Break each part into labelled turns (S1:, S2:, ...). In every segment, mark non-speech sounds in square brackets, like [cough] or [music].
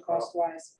S1: cost wise.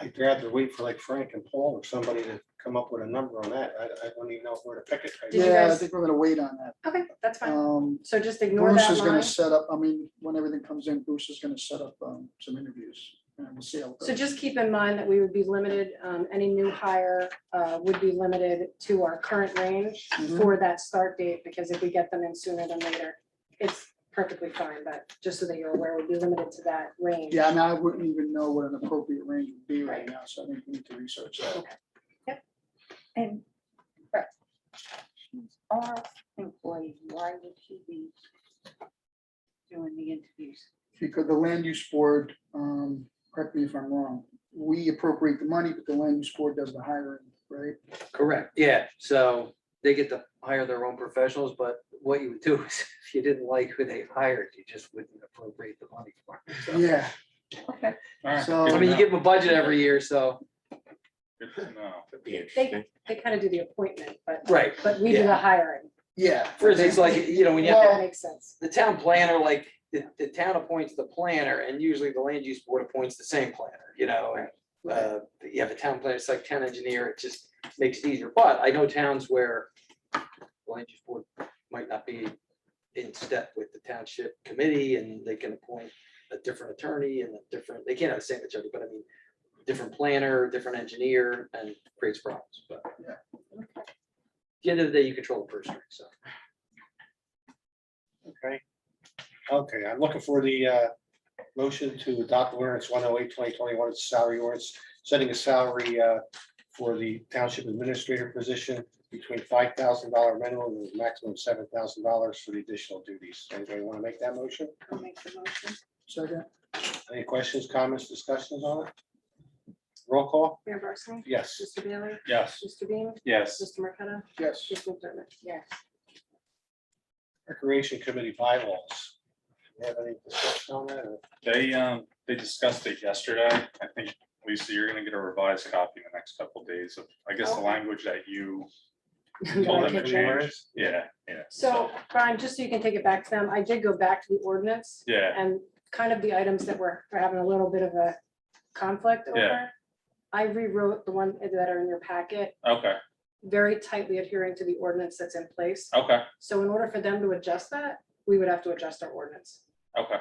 S2: I'd rather wait for like Frank and Paul or somebody to come up with a number on that. I, I don't even know where to pick it. right
S1: Did you
S2: now.
S3: Yeah, I
S1: guys-
S3: think we're gonna wait on that.
S1: Okay, that's fine.
S3: Um,
S1: So just ignore
S3: Bruce
S1: that
S3: is gonna
S1: line.
S3: set up, I mean, when everything comes in, Bruce is gonna set up, um, some interviews and we'll see how. it
S1: So
S3: goes.
S1: just keep in mind that we would be limited, um, any new hire, uh, would be limited to our current range
S3: Mhm.
S1: for that start date, because if we get them in sooner than later, it's perfectly fine, but just so that you're aware, we'd be limited to that range.
S3: Yeah, I mean, I wouldn't even know what an appropriate range would be right
S1: Right.
S3: now, so I think we need to research that.
S4: And, but our employee, why would he be doing the interviews?
S3: Because the land use board, um, correct me if I'm wrong, we appropriate the money, but the land use board does the hiring, right?
S5: Correct, yeah, so they get to hire their own professionals, but what you would do [laughs] is if you didn't like who they hired, you just wouldn't appropriate the money for it. so.
S3: Yeah,
S4: Okay.
S6: All right,
S3: So-
S6: good
S5: I mean, you
S6: to
S5: give them a budget every year, so,
S6: know. Good to know.
S1: They, they kind of do the appointment, but,
S5: right,
S1: but we do the
S5: Yeah.
S1: hiring,
S3: yeah.
S5: for instance, like, you know, when you
S1: if
S5: have
S1: that
S3: Well-
S1: makes sense.
S5: the town planner, like, the, the town appoints the planner, and usually the land use board appoints the same planner, you know, and. Uh, but yeah, the town planner, it's like town engineer, it just makes it easier, but I know towns where. the Land use board might not be in step with the township committee, and they can appoint a different attorney and a different, they can't have the same attorney, but I mean. Different planner, different engineer, and creates problems, but.
S3: Yeah.
S5: At the end of the day, you control the purse strings, so.
S2: Okay. Okay, I'm looking for the uh, motion to adopt ordinance 108 2021 It's salary ordinance, setting a salary uh, for the township administrator position between five thousand dollar minimum and maximum seven thousand dollars for the additional duties. Anybody want to make that motion?
S4: I'll make the motion.
S3: Second,
S2: Any questions, comments, discussions on it? Roll call?
S1: Mayor Barsney?
S2: Yes.
S1: Mr. Bailey?
S6: Yes,
S1: Mr. Bean?
S6: yes.
S1: Mr. Marqueta?
S3: yes.
S1: Mr. McDermott?
S4: Yes.
S2: Recreation Committee bylaws. You Have any discussion on that? or-
S6: They, um, they discussed it yesterday. I think, Lisa, you're gonna get a revised copy in the next couple of days of, I guess, the
S1: Okay.
S6: language that you.
S1: Got a
S6: told them to
S1: picture.
S6: change. Yeah, yeah.
S1: So, Brian, just so you can take it back to them, I did go back to the ordinance
S6: Yeah,
S1: and kind of the items that were, are having a little bit of a conflict
S6: Yeah.
S1: over. I rewrote the one that are in your packet,
S6: okay,
S1: very tightly adhering to the ordinance that's in place.
S6: okay,
S1: So in order for them to adjust that, we would have to adjust our ordinance.
S6: okay,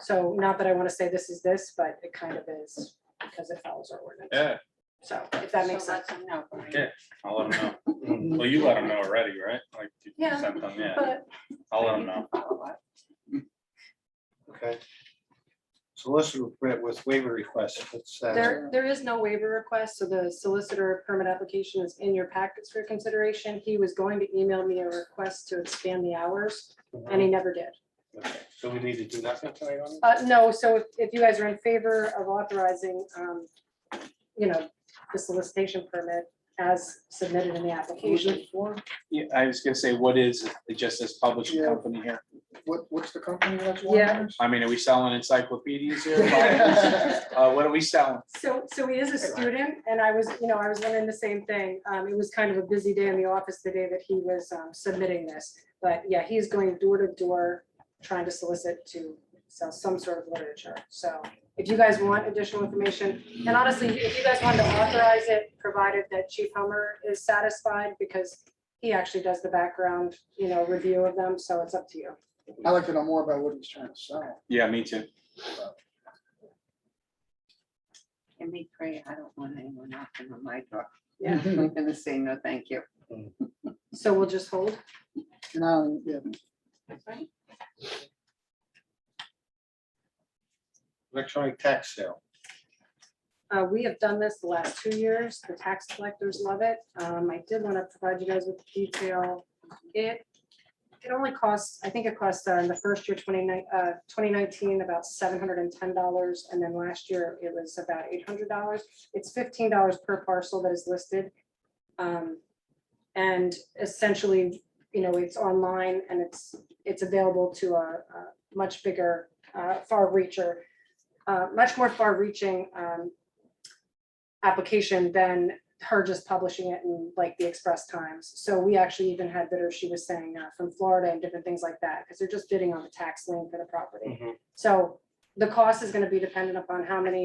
S1: So not that I want to say this is this, but it kind of is because it follows our ordinance.
S6: yeah,
S1: So if that makes
S4: So
S1: sense.
S4: let them know.
S6: okay. I'll let them
S2: Mm-hmm.
S6: know. Well, you let them know already, right? Like you
S1: Yeah,
S6: sent them, yeah.
S1: But
S6: I'll let them know.
S2: Okay. Solicitor permit with waiver request. That's, uh,
S1: there, there is no waiver request, so the solicitor permit application is in your packets for consideration. He was going to email me a request to expand the hours, and he never did.
S2: okay. So we need to do nothing tonight on it?
S1: Uh, no, so if, if you guys are in favor of authorizing, um, you know, the solicitation permit as submitted in the application.
S7: Yeah, I was gonna say, what is, it just this publishing
S3: Yeah.
S7: company here?
S3: What, what's the company that's one?
S1: Yeah.
S7: I mean, are we selling encyclopedias
S3: [laughs]
S7: here? Bibles? Uh, what are we selling?
S1: So, so he is a student, and I was, you know, I was wondering the same thing. Um, it was kind of a busy day in the office the day that he was, um, submitting this. But yeah, he's going door to door, trying to solicit to sell some sort of literature. So if you guys want additional information, and honestly, if you guys wanted to authorize it, provided that Chief Hummer is satisfied, because he actually does the background, you know, review of them, so it's up to you.
S3: I like to know more about what he's trying to sell.
S7: Yeah, me too.
S4: And me pray, I don't want anyone knocking on my door.
S1: Yeah.
S3: [laughs]
S4: I'm gonna say no, thank you.
S1: So we'll just hold.
S3: And I, don't- yeah,
S2: Electronic tax sale.
S1: Uh, we have done this the last two years. The tax collectors love it. Um, I did want to provide you guys with detail. It, it only costs, I think it cost uh, in the first year, twenty nine, uh, twenty nineteen, about seven hundred and ten dollars. And then last year it was about eight hundred dollars. It's fifteen dollars per parcel that is listed. Um, and essentially, you know, it's online and it's, it's available to a, a much bigger, uh, far reacher, uh, much more far reaching, um, application than her just publishing it in like the Express Times. So we actually even had bidders, she was saying, uh, from Florida and different things like that, because they're just bidding on the tax lien for the property. So the cost is gonna be dependent upon how many